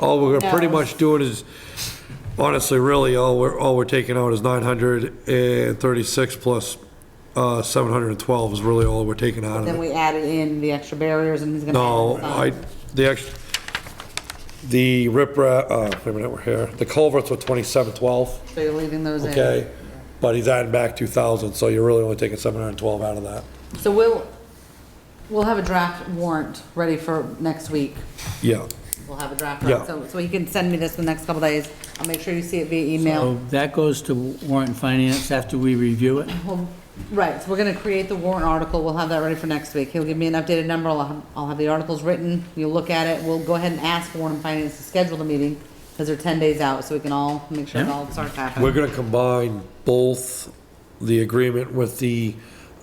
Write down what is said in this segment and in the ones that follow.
All we're pretty No. much doing is, honestly, really, all we're, all we're taking out is 936 plus uh, 712 is really all we're taking out of Then it. we added in the extra barriers and he's gonna. No, add some. I, the, act- the riprap, uh, wait a minute, we're here, the culverts were 2712, So you're leaving those in. okay? But he's adding back 2,000, so you're really only taking 712 out of that. So we'll, we'll have a draft warrant ready for next week. Yeah. We'll have a draft, warrant. Yeah. so, so he can send me this in the next couple days. I'll make sure you see it via So email. that goes to warrant and finance after we review it? Well, Right, so we're gonna create the warrant article, we'll have that ready for next week. He'll give me an updated number, I'll, have- I'll have the articles written, you'll look at it, we'll go ahead and ask Warren and Finance to schedule the meeting, because they're ten days out, so we can all make sure it Yeah. all starts happening. We're gonna combine both the agreement with the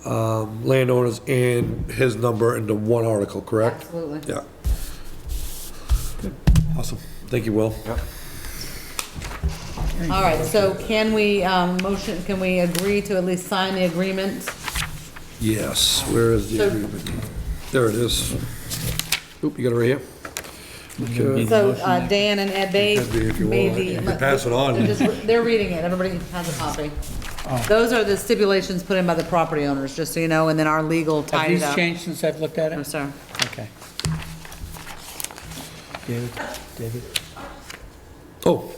um, landowners and his number into one article, correct? Absolutely. Yeah. Awesome. Thank you, Will. All right, so can we, um, motion, can we agree to at least sign the agreement? Yes, where is the So- agreement? There it is. Oop, you got it right here? Okay. So, uh, Dan and Ed Bay It could be if you made want. the. You can pass it on. They're just- They're reading it, everybody has a copy. Oh. Those are the stipulations put in by the property owners, just so you know, and then our legal Have tied it these up. changed since I've looked at I'm it? sorry. Okay. David, David, Oh,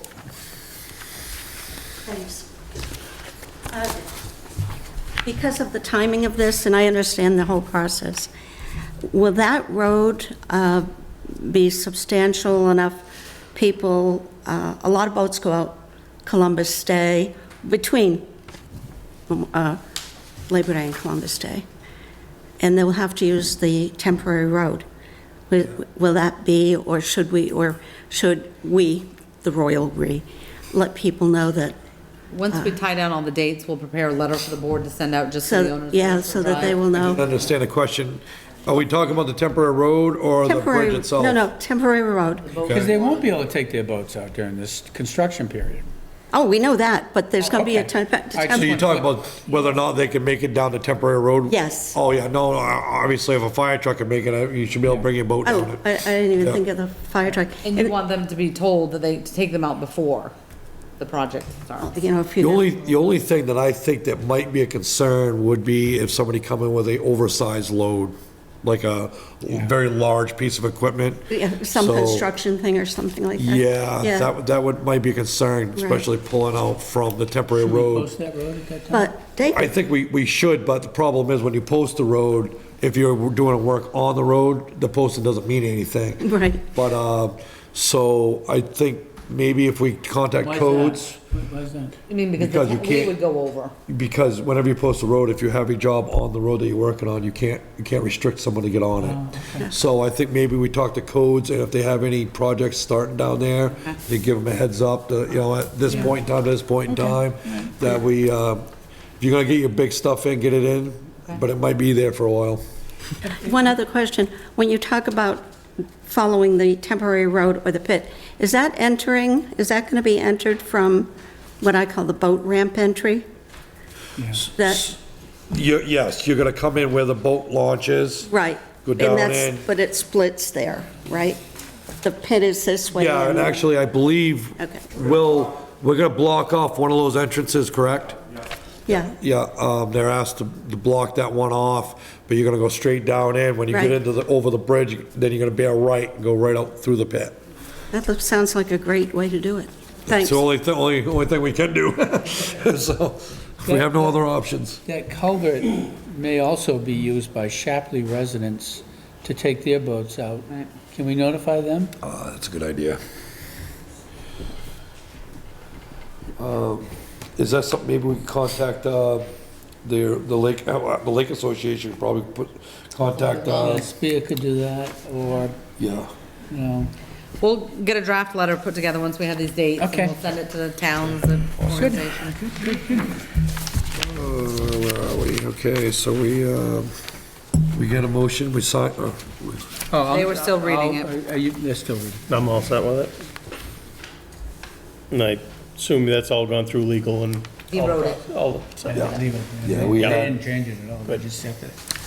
Thanks. Uh, Because of the timing of this, and I understand the whole process, will that road uh, be substantial enough? People, uh, a lot of boats go out Columbus Day, between um, uh, Labor Day and Columbus Day, and they'll have to use the temporary road. Will will that be, or should we, or should we, the royal we, let people know that Once we tie down all the dates, we'll prepare a letter for the board to send out just to the Uh. So, owners. yeah, so that they will I didn't know. understand the question. Are we talking about the temporary road or the Temporary, bridge itself? no, no, temporary road. because they won't be able to take their boats out during this construction period. Oh, we know that, but there's going to be a Okay. temp- I So temp- you're talking about whether or not they can make it down the temporary road? Yes. Oh, yeah, no, no, obviously if a fire truck can make it, uh, you should be able to bring your boat down Oh, it. I I didn't Yeah. even think of the fire truck. And you want them to be told that they, to take them out before the project starts. You know, if The you, only, the only thing that I think that might be a concern would be if somebody come in with a oversized load, like a very large piece of equipment. yeah, some So, construction thing or something like that. Yeah, that, would- that would, might be a concern, especially pulling out from the temporary road. Post that road at that time? But I David, think we, we should, but the problem is when you post the road, if you're doing work on the road, the posting doesn't mean anything. Right. But, uh, so I think maybe if we contact Why is that? codes, Why is that? I mean, because Because you the- we can't- would go over. because whenever you post a road, if you have a job on the road that you're working on, you can't, you can't restrict someone to get on it. So I think maybe we talk to codes and if they have any projects starting down there, they give them a heads up, to, you know, at this point in time, this point in time, that we, uh, if you're gonna get your big stuff in, get it in, but it might be there for a while. one other question. When you talk about following the temporary road or the pit, is that entering, is that going to be entered from what I call the boat ramp entry? That, You're, yes, you're gonna come in where the boat launches. right. Go And down that's- in. But it splits there, right? The pit is this way. Yeah, and actually, I believe, Okay. Will, we're gonna block off one of those entrances, correct? Yeah. Yeah, um, they're asked to to block that one off, but you're gonna go straight down in. When you get Right. into the, over the bridge, then you're gonna bear right and go right out through the pit. That looks- sounds like a great way to do it. It's Thanks. the only, thi- only, only thing we can do. So, we have no other options. That culvert may also be used by Shapley residents to take their boats out. Right. Can we notify them? Ah, that's a good idea. Um, Is that something, maybe we can contact, uh, the, the lake, uh, the lake association probably put, contact, Uh, uh, Spear could do that, or, yeah. you know, We'll get a draft letter put together once we have these dates. and Okay. We'll send it to the towns and organizations. Uh, where are we? Okay, so we, um, we get a motion, we sign, uh, They were still reading it. Oh, Are you, they're still reading. I'm all set with it. And I assume that's all gone through legal and. He wrote it. all- all- so- Leave it. Yeah, we They had- didn't change it at all, they just have to